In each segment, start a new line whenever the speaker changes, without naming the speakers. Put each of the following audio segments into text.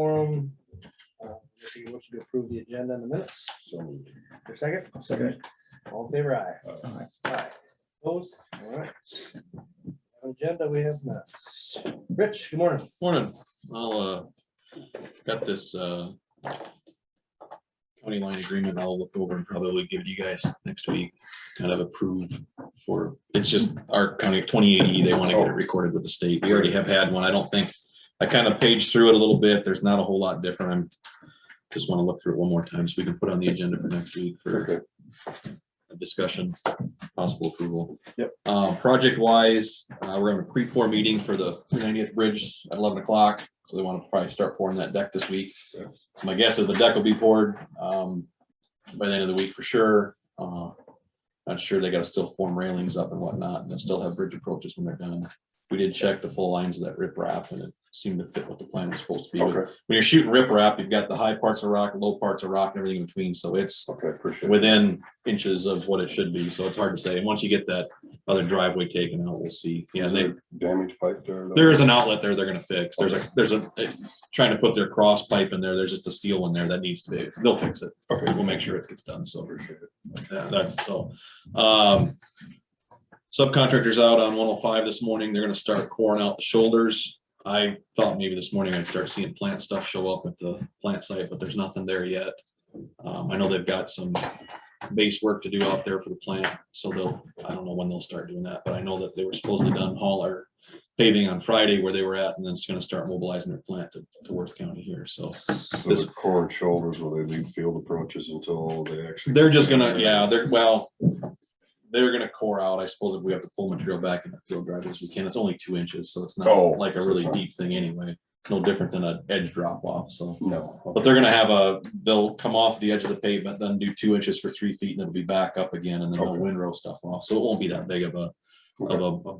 quorum. Uh, If you wish to approve the agenda in the minutes, so moved. Your second,
Second.
all in favor aye.
Aye.
Aye. Opposed, all right. Agenda, we have minutes. Rich, good morning.
Morning, I'll, uh, got this, uh, county line agreement I'll look over and probably give to you guys next week, kind of approve for, it's just our county twenty eighty, they want to get it recorded with the state. We already have had one, I don't think, I kind of paged through it a little bit, there's not a whole lot different, I'm just want to look through it one more time so we can put on the agenda for next week for a discussion, possible approval. Uh, project wise, uh, we're having a pre-pour meeting for the 90th bridge at eleven o'clock, so they want to probably start pouring that deck this week. My guess is the deck will be poured, um, by the end of the week for sure. Uh, not sure, they gotta still form railings up and whatnot, and they'll still have bridge approaches when they're done. We did check the full lines of that riprap, and it seemed to fit what the plan was supposed to be. When
Okay,
you're shooting riprap, you've got the high parts of rock, low parts of rock, and everything in between, so it's
okay, appreciate it.
within inches of what it should be, so it's hard to say. And once you get that other driveway taken out, we'll see. Yeah,
Is
they,
there Damage pipe there. though?
there is an outlet there they're gonna fix. There's a, there's a, eh, trying to put their cross pipe in there. There's just a steel one there that needs to be, they'll fix it.
Okay.
We'll make sure it gets done, so. Yeah, that- So, um, subcontractors out on one oh five this morning. They're gonna start coring out the shoulders. I thought maybe this morning I'd start seeing plant stuff show up at the plant site, but there's nothing there yet. Um, I know they've got some base work to do out there for the plant, so they'll, I don't know when they'll start doing that, but I know that they were supposedly done haul or paving on Friday where they were at, and then it's gonna start mobilizing their plant to, to Worth County here, so.
So the core and shoulders, will they leave field approaches until they actually?
They're just gonna, yeah, they're, well, they're gonna core out, I suppose, if we have to pull material back in the field driveways, we can, it's only two inches, so it's not
Oh,
like a
so it's
really
not-
deep thing anyway. No different than an edge drop off, so.
No.
But they're gonna have a, they'll come off the edge of the pavement, then do two inches for three feet, and it'll be back up again, and then they'll
Okay.
windrow stuff off, so it won't be that big of a,
Okay.
of a, a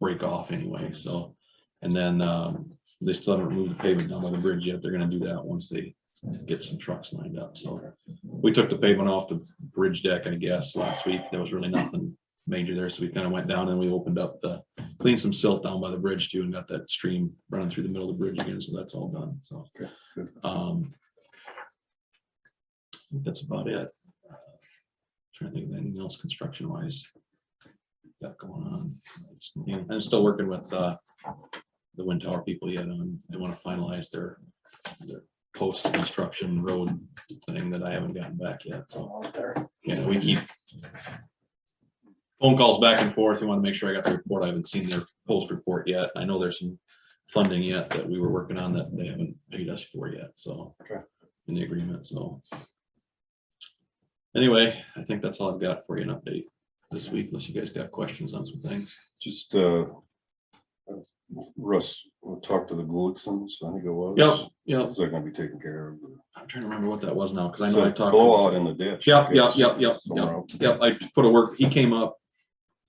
break off anyway, so. And then, um, they still haven't removed the pavement down by the bridge yet, they're gonna do that once they get some trucks lined up, so. We took the pavement off the bridge deck, I guess, last week, there was really nothing major there, so we kind of went down and we opened up the, cleaned some silt down by the bridge too, and got that stream running through the middle of the bridge again, so that's all done, so.
Okay, good.
Um. I think That's about it. Uh, Trying to think of anything else construction wise. Got going on. Yeah, I'm still working with uh. The wind tower people yet on, they want to finalize their. Their post construction road thing that I haven't gotten back yet, so,
All there.
yeah, we keep. Phone calls back and forth. We want to make sure I got the report. I haven't seen their post report yet. I know there's some funding yet that we were working on that they haven't paid us for yet, so.
Okay.
In the agreement, so. Anyway, I think that's all I've got for you an update this week, unless you guys got questions on some things.
Just, uh, Russ, we'll talk to the Glucksons, I think it was.
Yep, yep.
Is that gonna be taken care of?
I'm trying to remember what that was now, because I know I talked. to-
Blowout in the ditch.
Yep, yep,
okay,
yep, yep,
somewhere else.
Yep, I put a work, he came up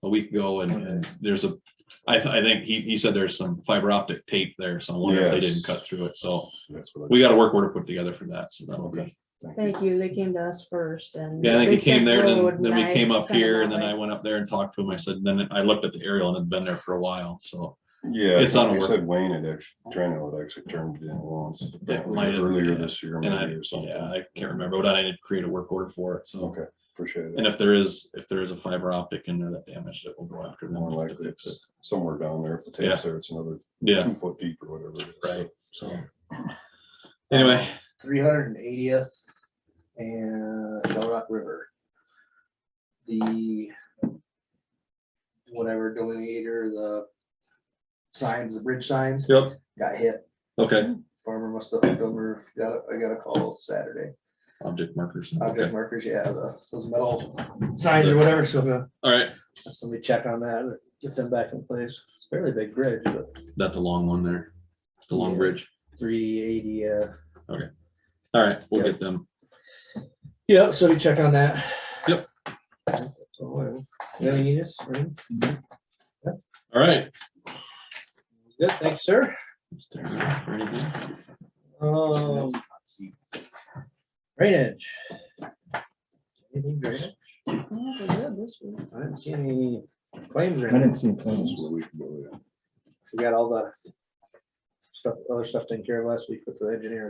a week ago and, and there's a, I, th- I think he, he said there's some fiber optic tape there, so I wonder if they
Yes.
didn't cut through it, so
That's what I-
we got a work order put together for that, so that'll be.
Thank you, they came to us first and.
Yeah, I think
they
he came
sent
there,
road
then, then
and I
we came up
sent them
here
that
and then
way.
I went up there and talked to him, I said, then I looked at the aerial and it'd been there for a while, so.
Yeah.
It's on a
He
work-
said Wayne had actually, Trano had actually turned it in once.
It might have,
Earlier
yeah.
this year,
And I,
maybe or something.
yeah, I can't remember, but I did create a work order for it, so.
Okay, appreciate it.
And if there is, if there is a fiber optic in there that damaged it, we'll go after them.
More
to
likely
fix it.
it's somewhere down there. If the
Yeah.
tape's there, it's another
Yeah,
two foot deep or whatever. it is.
right, so. Anyway.
Three hundred and eightieth and Bell Rock River. The whatever delineator, the signs, the bridge signs,
Yep,
got hit.
okay.
Farmer must have hooked over, got, a- I got a call Saturday.
Object markers.
Object
Okay,
markers, yeah, the- those metal signs or whatever, so uh, I'm gonna
all right.
have somebody check on that, and get them back in place. It's a fairly big bridge, but
That's the long one there. The long
Yeah.
bridge.
three eighty, uh,
All right, we'll
Yeah.
get them.
yeah, so we check on that.
Yep.
So, uh, Anything you need us?
All right.
Good, thanks, sir.
Or anything?
Um. Drainage. Anything drainage?
Oh, they're good this week.
I didn't see any claims or
I
anything.
didn't see
That's
plans.
where we can go, yeah.
We got all the stuff, other stuff taken care of last week with the engineer